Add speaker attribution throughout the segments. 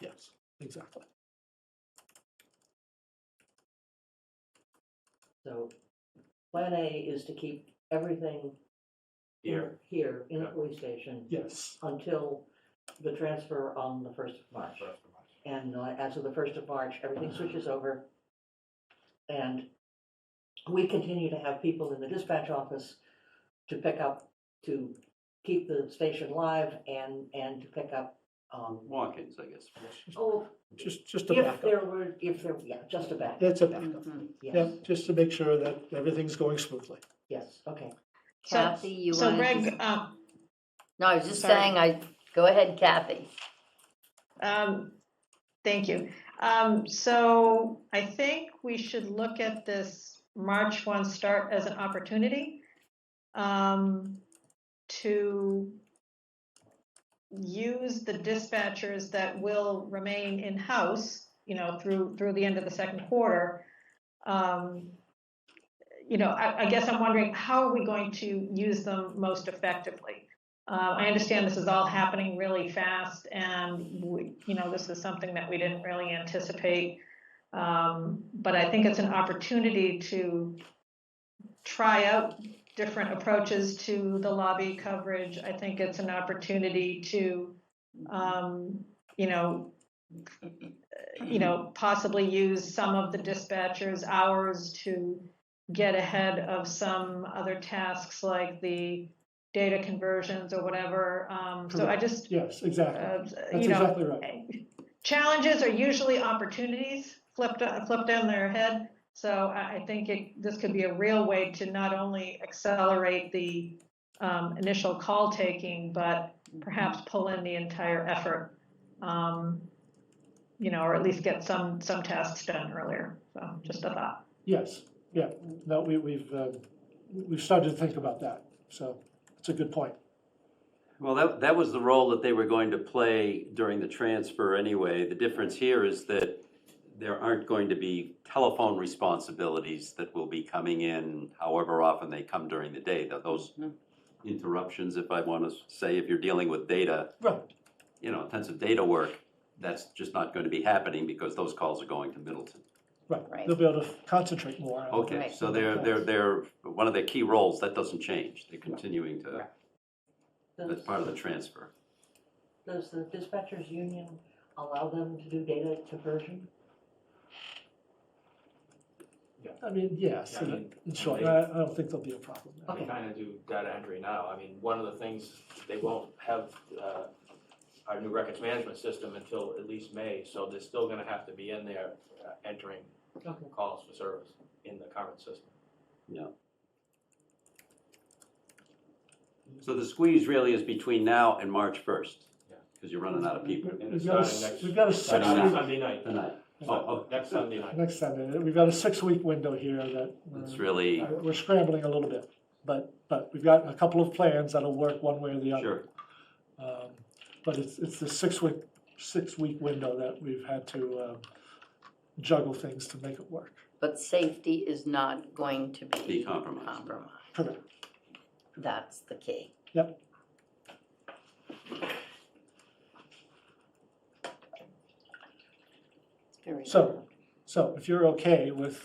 Speaker 1: Yes, exactly.
Speaker 2: So, plan A is to keep everything. in-
Speaker 3: Here.
Speaker 2: Here, in the
Speaker 3: Yeah.
Speaker 2: police station,
Speaker 1: Yes,
Speaker 2: until the transfer on the first of March. Uh-huh. And uh, as of the first of March, everything switches over. And we continue to have people in the dispatch office to pick up, to keep the station live and, and to pick up, um,
Speaker 3: Walk-ins, I guess.
Speaker 2: oh,
Speaker 1: just, just to
Speaker 2: if
Speaker 1: back up.
Speaker 2: there were, if there, yeah, just a backup, Mm-hmm.
Speaker 1: It's a backup. Yeah,
Speaker 2: yes,
Speaker 1: just to make sure that everything's going smoothly.
Speaker 2: yes, okay.
Speaker 4: So,
Speaker 5: Kathy, you
Speaker 4: so
Speaker 5: wanted to s-
Speaker 4: Greg, um,
Speaker 5: No, I was just
Speaker 4: sorry.
Speaker 5: saying, I, go ahead, Kathy.
Speaker 4: um, thank you. Um, so I think we should look at this March one start as an opportunity um, to use the dispatchers that will remain in-house, you know, through, through the end of the second quarter. Um, you know, I, I guess I'm wondering, how are we going to use them most effectively? Uh, I understand this is all happening really fast and we, you know, this is something that we didn't really anticipate. Um, but I think it's an opportunity to try out different approaches to the lobby coverage. I think it's an opportunity to, um, you know, you know, possibly use some of the dispatchers' hours to get ahead of some other tasks like the data conversions or whatever. Um, so I just,
Speaker 1: Yes, exactly.
Speaker 4: uh,
Speaker 1: That's
Speaker 4: you know,
Speaker 1: exactly right.
Speaker 4: challenges are usually opportunities flipped flipped on their head. So I, I think it, this could be a real way to not only accelerate the um, initial call taking, but perhaps pull in the entire effort. Um, you know, or at least get some some tasks done earlier. So just a thought.
Speaker 1: Yes, yeah. No, we, we've, uh, we've started to think about that. So it's a good point.
Speaker 3: Well, that, that was the role that they were going to play during the transfer anyway. The difference here is that there aren't going to be telephone responsibilities that will be coming in however often they come during the day. Tho- Those interruptions, if I want to say, if you're dealing with data,
Speaker 1: Right.
Speaker 3: you know, intensive data work, that's just not going to be happening because those calls are going to Middleton.
Speaker 1: Right,
Speaker 5: Right.
Speaker 1: they'll be able to concentrate more. on it.
Speaker 3: Okay,
Speaker 5: Right.
Speaker 3: so they're, they're, they're, one of their key roles, that doesn't change. They're continuing to, that's
Speaker 2: Does-
Speaker 3: part of the transfer.
Speaker 2: Does the dispatchers union allow them to do data conversion?
Speaker 1: I mean, yes,
Speaker 6: I mean,
Speaker 1: in short,
Speaker 6: they-
Speaker 1: I, I don't think there'll be a problem. there.
Speaker 6: They kind of do data entry now. I mean, one of the things, they won't have uh, our new records management system until at least May, so they're still going to have to be in there uh, entering
Speaker 2: Okay.
Speaker 6: calls for service in the current system.
Speaker 3: So the squeeze really is between now and March first,
Speaker 6: Yeah.
Speaker 3: because you're running out of people
Speaker 1: We-
Speaker 6: And
Speaker 1: We've
Speaker 6: it's
Speaker 1: got a,
Speaker 6: starting
Speaker 1: s-
Speaker 6: next-
Speaker 1: we've got a six
Speaker 6: Starting
Speaker 3: Sunday
Speaker 1: week,
Speaker 3: night.
Speaker 6: Sunday night,
Speaker 3: tonight.
Speaker 6: So,
Speaker 3: Oh,
Speaker 6: next Sunday night.
Speaker 1: next Sunday, we've got a six week window here that.
Speaker 3: oh,
Speaker 1: uh,
Speaker 3: it's really,
Speaker 1: Uh, We're scrambling a little bit, but, but we've got a couple of plans that'll work one way or the other.
Speaker 3: sure,
Speaker 1: Um, But it's, it's the six-week, six-week window that we've had to um, juggle things to make it work.
Speaker 5: But safety is not going to
Speaker 3: be
Speaker 5: be
Speaker 3: compromised.
Speaker 5: compromised.
Speaker 1: Correct.
Speaker 5: That's the key. Very
Speaker 1: So, so if you're okay with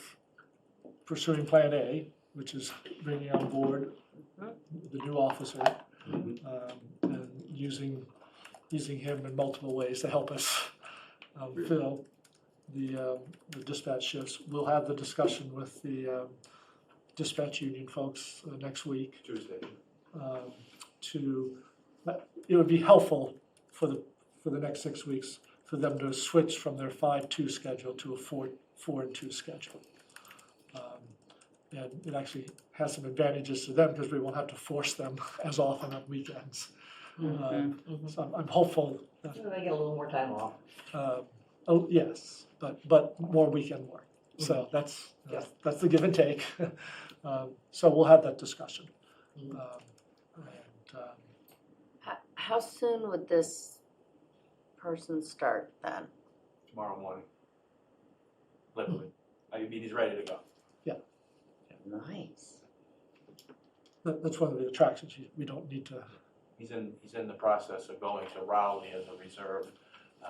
Speaker 1: pursuing Plan A, which is bringing on board the new officer
Speaker 3: Mhm.
Speaker 1: um, and using, using him in multiple ways to help us um,
Speaker 3: Really?
Speaker 1: fill the um, the dispatch shifts, we'll have the discussion with the um, dispatch union folks uh, next week
Speaker 6: Tuesday.
Speaker 1: um, to, but it would be helpful for the, for the next six weeks, for them to switch from their five-two schedule to a four, four and two schedule. Um, And it actually has some advantages to them because we won't have to force them as often on weekends. Um,
Speaker 2: Mhm.
Speaker 1: So I'm, I'm hopeful that,
Speaker 2: So They get a little more time off.
Speaker 1: um, oh, yes, but, but more weekend work. So that's, that's- that's the give and take. Um, So we'll have that discussion.
Speaker 2: Mhm.
Speaker 1: Um, And, um,
Speaker 5: How, how soon would this person start then?
Speaker 6: tomorrow morning. Literally. IUBD's ready to go.
Speaker 5: Nice.
Speaker 1: That, that's one of the attractions, you- we don't need to,
Speaker 6: He's in, he's in the process of going to Rowley as a reserve